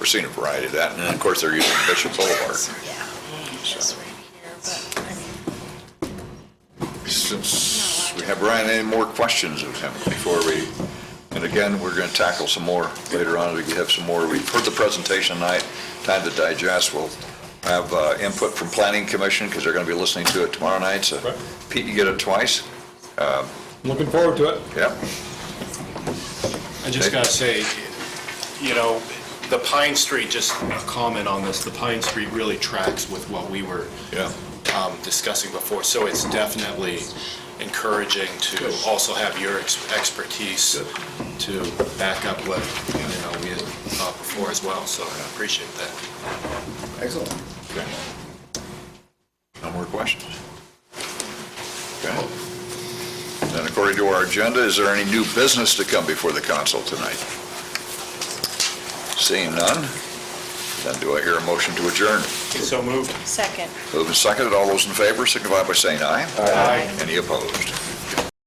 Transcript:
We're seeing a variety of that, and of course, they're using Bishop Boulevard. Yeah, just right here, but, I mean, Since we have Brian, any more questions of him before we, and again, we're going to tackle some more later on, we have some more, we've heard the presentation tonight, time to digest, we'll have uh, input from Planning Commission, because they're going to be listening to it tomorrow night, so Right. Pete, you get it twice, Looking forward to it. yep, I just gotta say, you know, the Pine Street, just a comment on this, the Pine Street really tracks with what we were Yeah. um, discussing before, so it's definitely encouraging to also have your ex- expertise to back up what, you know, we had thought before as well, so I appreciate that. Excellent. Okay. No more questions? Okay. Then according to our agenda, is there any new business to come before the council tonight? Seeing none, then do I hear a motion to adjourn? So moved. second. Moving seconded, all those in favor signify by saying aye. Aye. Any opposed?